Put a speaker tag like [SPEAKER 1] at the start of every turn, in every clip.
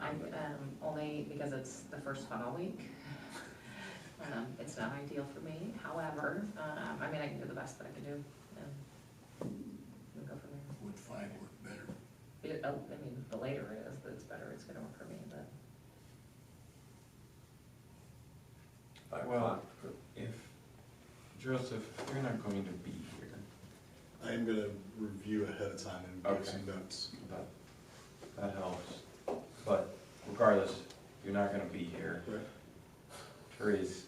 [SPEAKER 1] I'm, um, only because it's the first funnel week. Um, it's not ideal for me, however, um, I mean, I can do the best that I can do, and we'll go from there.
[SPEAKER 2] Would five work better?
[SPEAKER 1] It, uh, I mean, the later it is, it's better, it's gonna work for me, but.
[SPEAKER 3] Well, if, Joseph, you're not going to be here,
[SPEAKER 4] I am gonna review ahead of time and
[SPEAKER 3] Okay.
[SPEAKER 4] make some notes.
[SPEAKER 3] that, that helps. But regardless, you're not gonna be here.
[SPEAKER 4] Right.
[SPEAKER 3] Therese,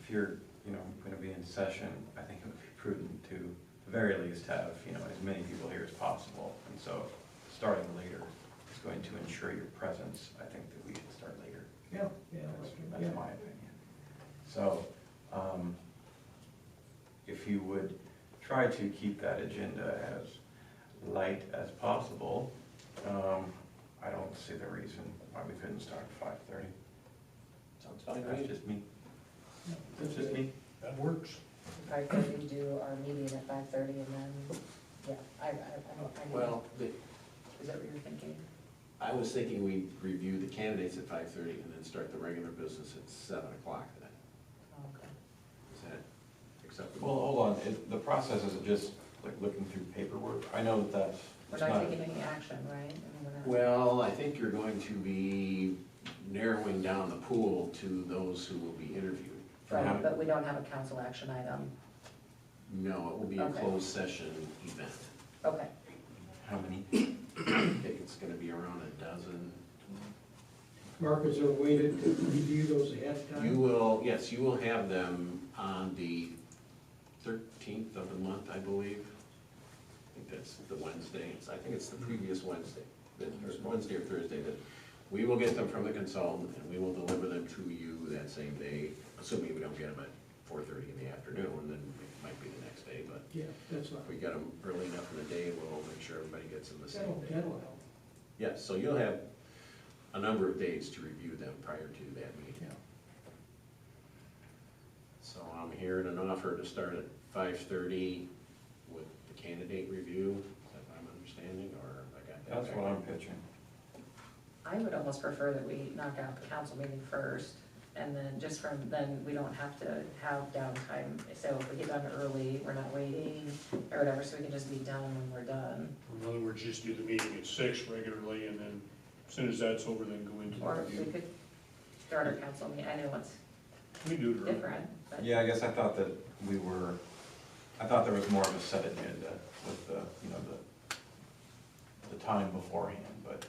[SPEAKER 3] if you're, you know, gonna be in session, I think it would be prudent to, at the very least, have, you know, as many people here as possible. And so, starting later is going to ensure your presence. I think that we should start later.
[SPEAKER 5] Yeah, yeah,
[SPEAKER 3] That's
[SPEAKER 5] yeah.
[SPEAKER 3] that's my opinion. So, um, if you would try to keep that agenda as light as possible, um, I don't see the reason why we couldn't start at five thirty.
[SPEAKER 6] Sounds fine to
[SPEAKER 3] That's
[SPEAKER 6] me.
[SPEAKER 3] just me. That's just me.
[SPEAKER 2] That works.
[SPEAKER 7] Five thirty, do our meeting at five thirty and then, yeah, I, I, I don't, I don't.
[SPEAKER 6] Well, the-
[SPEAKER 1] Is that what you're thinking?
[SPEAKER 6] I was thinking we review the candidates at five thirty and then start the regular business at seven o'clock then.
[SPEAKER 1] Oh, Okay.
[SPEAKER 6] Is that
[SPEAKER 3] Well,
[SPEAKER 6] acceptable?
[SPEAKER 3] hold on, It- the process is just like looking through paperwork. I know that that's,
[SPEAKER 1] We're
[SPEAKER 3] it's
[SPEAKER 1] not
[SPEAKER 3] not,
[SPEAKER 1] taking any action, right? I mean, we're not-
[SPEAKER 6] Well, I think you're going to be narrowing down the pool to those who will be interviewed.
[SPEAKER 1] Right, but we don't have a council action item,
[SPEAKER 6] No, it will be a
[SPEAKER 1] Okay.
[SPEAKER 6] closed session event.
[SPEAKER 1] okay.
[SPEAKER 3] how many?
[SPEAKER 6] I think it's gonna be around a dozen.
[SPEAKER 5] Mark, is there a way to to review those ahead of
[SPEAKER 6] You
[SPEAKER 5] time?
[SPEAKER 6] will, yes, you will have them on the thirteenth of the month, I believe. I think that's the Wednesday, It's- I think it's the previous Wednesday, the- or Wednesday or Thursday, that we will get them from the consultant, and we will deliver them to you that same day, assuming we don't get them at four thirty in the afternoon, then it might be the next day, but
[SPEAKER 5] Yeah, that's all
[SPEAKER 6] if we
[SPEAKER 5] right.
[SPEAKER 6] get them early enough in the day, we'll make sure everybody gets them the same
[SPEAKER 5] That'll,
[SPEAKER 6] day.
[SPEAKER 5] that'll help.
[SPEAKER 6] Yes, so you'll have a number of days to review them prior to that meeting. So I'm hearing an offer to start at five thirty with the candidate review, is that what I'm understanding, or I got that?
[SPEAKER 3] That's what I'm pitching.
[SPEAKER 1] I would almost prefer that we knock out the council meeting first, and then just from, then we don't have to have downtime. So if we get done early, we're not waiting, or whatever, so we can just be done when we're done.
[SPEAKER 2] In other words, just do the meeting at six regularly, and then as soon as that's over, then go into the
[SPEAKER 1] Or we
[SPEAKER 2] review.
[SPEAKER 1] could start our council meeting, I know it's
[SPEAKER 2] We do it early.
[SPEAKER 1] different, but,
[SPEAKER 3] Yeah, I guess I thought that we were, I thought there was more of a set agenda with the, you know, the, the time beforehand, but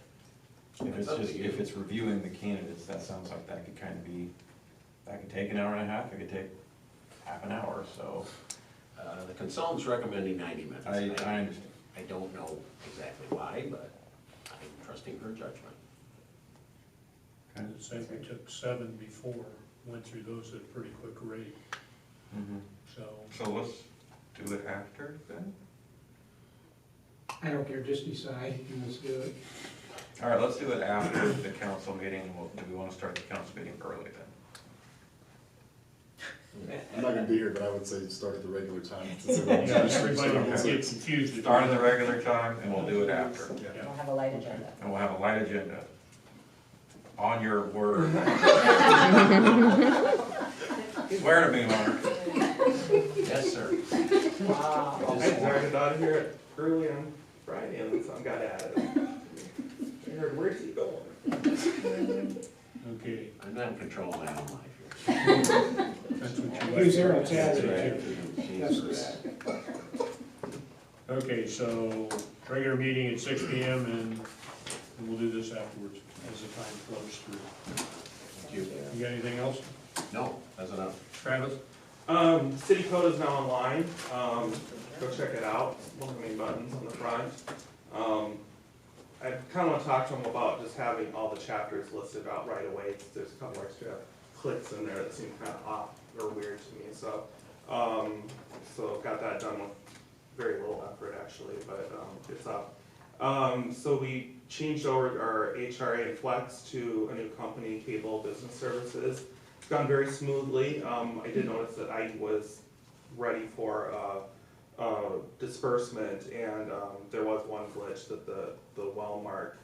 [SPEAKER 3] if it's
[SPEAKER 6] It's up to
[SPEAKER 3] just,
[SPEAKER 6] you.
[SPEAKER 3] if it's reviewing the candidates, that sounds like that could kind of be, that could take an hour and a half, it could take half an hour, so
[SPEAKER 6] Uh, the consultant's recommending ninety minutes.
[SPEAKER 3] I, I understand.
[SPEAKER 6] I don't know exactly why, but I'm trusting her judgment.
[SPEAKER 3] Okay.
[SPEAKER 2] Say we took seven before, went through those at a pretty quick rate,
[SPEAKER 3] Mhm.
[SPEAKER 2] so.
[SPEAKER 3] So let's do it after then?
[SPEAKER 5] I don't care, just decide, and let's do it.
[SPEAKER 3] All right, let's do it after the council meeting, Well, do we want to start the council meeting early then?
[SPEAKER 4] I'm not gonna be here, but I would say start at the regular time. since everyone-
[SPEAKER 2] Yeah, everybody will
[SPEAKER 4] Yeah.
[SPEAKER 2] get confused. if-
[SPEAKER 3] Start at the regular time and we'll do it after.
[SPEAKER 2] Yeah.
[SPEAKER 1] we'll have a light agenda.
[SPEAKER 3] And we'll have a light agenda. On your word. Swear to me, Mark.
[SPEAKER 6] Yes, sir.
[SPEAKER 1] Wow.
[SPEAKER 8] I started out of here early on Friday and some got at it. I heard, where's he going?
[SPEAKER 2] Okay,
[SPEAKER 6] I'm not in control of my own life here.
[SPEAKER 2] that's what you.
[SPEAKER 5] Who's there on
[SPEAKER 2] That's
[SPEAKER 5] Saturday?
[SPEAKER 2] what you-
[SPEAKER 5] That's that.
[SPEAKER 2] Okay, so regular meeting at six P M and and we'll do this afterwards as the time flows through.
[SPEAKER 6] Thank you.
[SPEAKER 2] You got anything else?
[SPEAKER 6] No, that's enough.
[SPEAKER 2] Travis?
[SPEAKER 8] Um, city code is now online, um, go check it out, look at any buttons on the front. Um, I kinda wanna talk to them about just having all the chapters listed out right away, there's a couple extra clicks in there that seem kinda off or weird to me, so. Um, so got that done with very little effort actually, but, um, it's up. Um, so we changed over our HRA and Flex to a new company, Cable Business Services. It's gone very smoothly. Um, I did notice that I was ready for, uh, uh, disbursement and, um, there was one glitch that the, the Wellmark